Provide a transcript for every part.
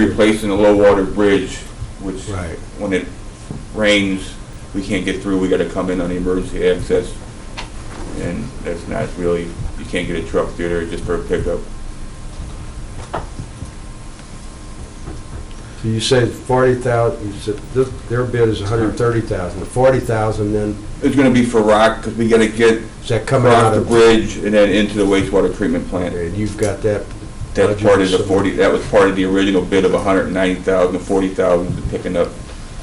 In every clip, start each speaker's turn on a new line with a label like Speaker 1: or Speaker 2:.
Speaker 1: replacing the low water bridge, which,
Speaker 2: Right.
Speaker 1: when it rains, we can't get through, we gotta come in on the emergency access. And that's not really, you can't get a truck through there just for a pickup.
Speaker 2: So you said forty thousand, you said, this- their bid is a hundred and thirty thousand, the forty thousand then,
Speaker 1: It's gonna be for rock, because we gotta get
Speaker 2: is that coming
Speaker 1: across
Speaker 2: out
Speaker 1: the
Speaker 2: of?
Speaker 1: bridge and then into the wastewater treatment plant.
Speaker 2: And you've got that.
Speaker 1: That's part of the
Speaker 2: budget, so-
Speaker 1: forty, that was part of the original bid of a hundred and ninety thousand, forty thousand, picking up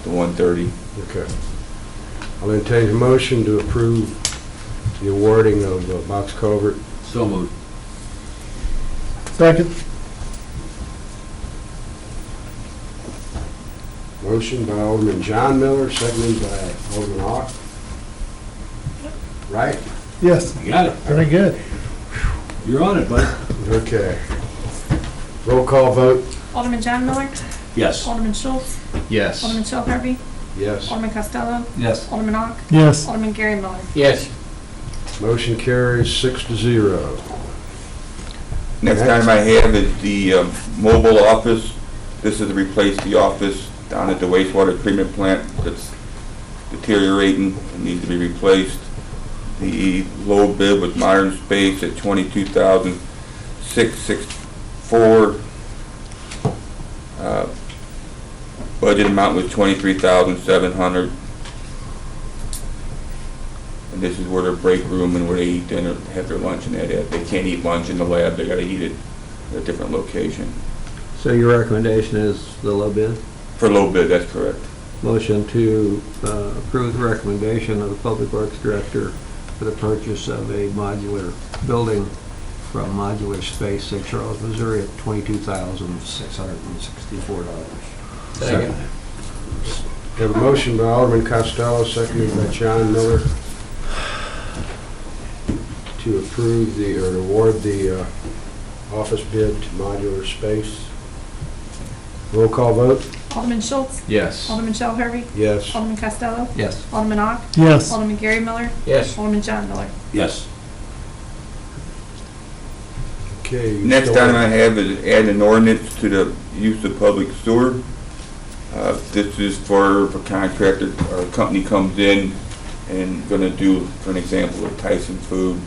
Speaker 1: the one thirty.
Speaker 2: Okay. I'll entertain a motion to approve the awarding of uh, box culvert.
Speaker 3: So moved.
Speaker 4: Second.
Speaker 2: Motion by Alderman John Miller, seconded by Alderman Ock. Right?
Speaker 4: Yes,
Speaker 3: You got it.
Speaker 4: very good.
Speaker 3: You're on it, bud.
Speaker 2: Okay. Roll call vote,
Speaker 5: Alderman John Miller,
Speaker 3: Yes.
Speaker 5: Alderman Schultz,
Speaker 6: Yes.
Speaker 5: Alderman Shel Harvey,
Speaker 2: yes.
Speaker 5: Alderman Costello,
Speaker 3: Yes.
Speaker 5: Alderman Ock,
Speaker 4: Yes.
Speaker 5: Alderman Gary Miller.
Speaker 6: Yes.
Speaker 2: Motion carries six to zero.
Speaker 1: Next
Speaker 2: Next.
Speaker 1: item I have is the um, mobile office. This is to replace the office down at the wastewater treatment plant that's deteriorating and needs to be replaced. The low bid was Modern Space at twenty-two thousand six six four. uh, Budget amount was twenty-three thousand seven hundred. And this is where their break room and where they eat dinner, have their lunch and that, at. they can't eat lunch in the lab, they gotta eat it at a different location.
Speaker 7: So your recommendation is the low bid?
Speaker 1: For a little bit, that's correct.
Speaker 7: Motion to uh, approve the recommendation of the Public Works Director for the purchase of a modular building from Modular Space, St. Charles, Missouri, at $22,664.
Speaker 3: Second.
Speaker 2: Have a motion by Alderman Costello, seconded by John Miller to approve the, or award the uh, office bid to modular space. Roll call vote?
Speaker 5: Alderman Schultz,
Speaker 6: Yes.
Speaker 5: Alderman Shel Harvey,
Speaker 2: Yes.
Speaker 5: Alderman Costello,
Speaker 7: Yes.
Speaker 5: Alderman Ock,
Speaker 4: Yes.
Speaker 5: Alderman Gary Miller,
Speaker 6: Yes.
Speaker 5: Alderman John Miller.
Speaker 3: Yes.
Speaker 2: Okay.
Speaker 1: Next item I have is add an ordinance to the use of public sewer. Uh, This is for if a contractor or a company comes in and gonna do, for an example, of Tyson Food,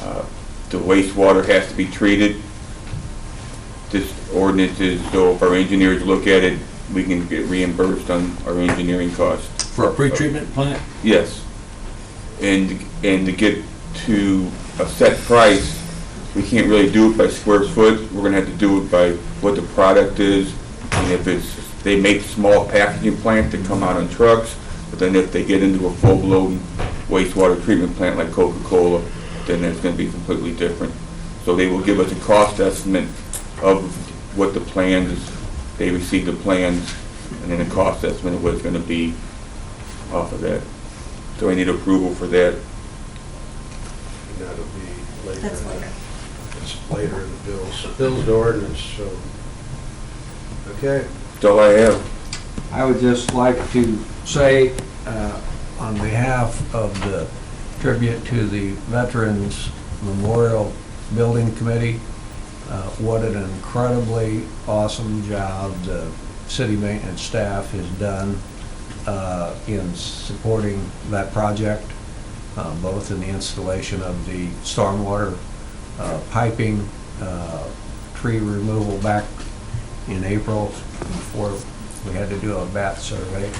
Speaker 1: uh, the wastewater has to be treated. This ordinance is, so if our engineers look at it, we can get reimbursed on our engineering costs.
Speaker 3: For a pretreatment plant?
Speaker 1: Yes. And, and to get to a set price, we can't really do it by square foot. We're gonna have to do it by what the product is. And if it's, they make small packaging plant that come out on trucks, but then if they get into a full-blown wastewater treatment plant like Coca-Cola, then it's gonna be completely different. So they will give us a cost estimate of what the plans, they receive the plans, and then a cost estimate of what it's gonna be off of that. So I need approval for that.
Speaker 2: That'll be later.
Speaker 5: That's later.
Speaker 2: It's later in the bills. Bills to ordinance, so. Okay.
Speaker 1: That's all I have.
Speaker 7: I would just like to say, uh, on behalf of the tribute to the Veterans Memorial Building Committee, uh, what an incredibly awesome job the city maintenance staff has done uh, in supporting that project, uh, both in the installation of the stormwater uh, piping, uh, tree removal back in April before we had to do a bat survey.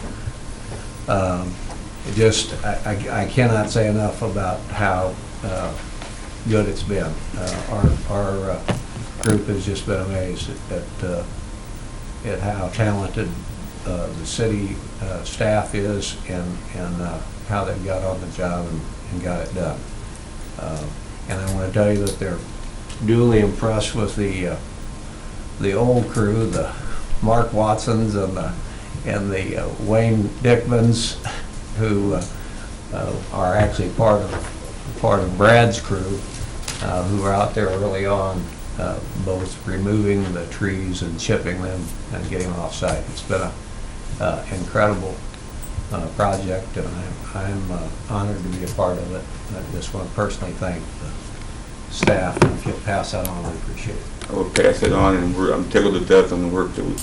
Speaker 7: Um, it Just, I I- I cannot say enough about how uh, good it's been. Uh, Our our uh, group has just been amazed at- at, uh, at how talented uh, the city uh, staff is and, and uh, how they got on the job and- and got it done. Uh, And I want to tell you that they're duly impressed with the, uh, the old crew, the Mark Watsons and the, and the uh, Wayne Dickmans, who uh, uh, are actually part of, part of Brad's crew, uh, who were out there early on, uh, both removing the trees and chipping them and getting them off-site. It's been a uh, incredible uh, project, and I'm- I'm uh, honored to be a part of it. I just want to personally thank the staff, and if you'll pass that on, I appreciate it.
Speaker 1: I will pass it on, and we're, I'm tickled to death on the work that we've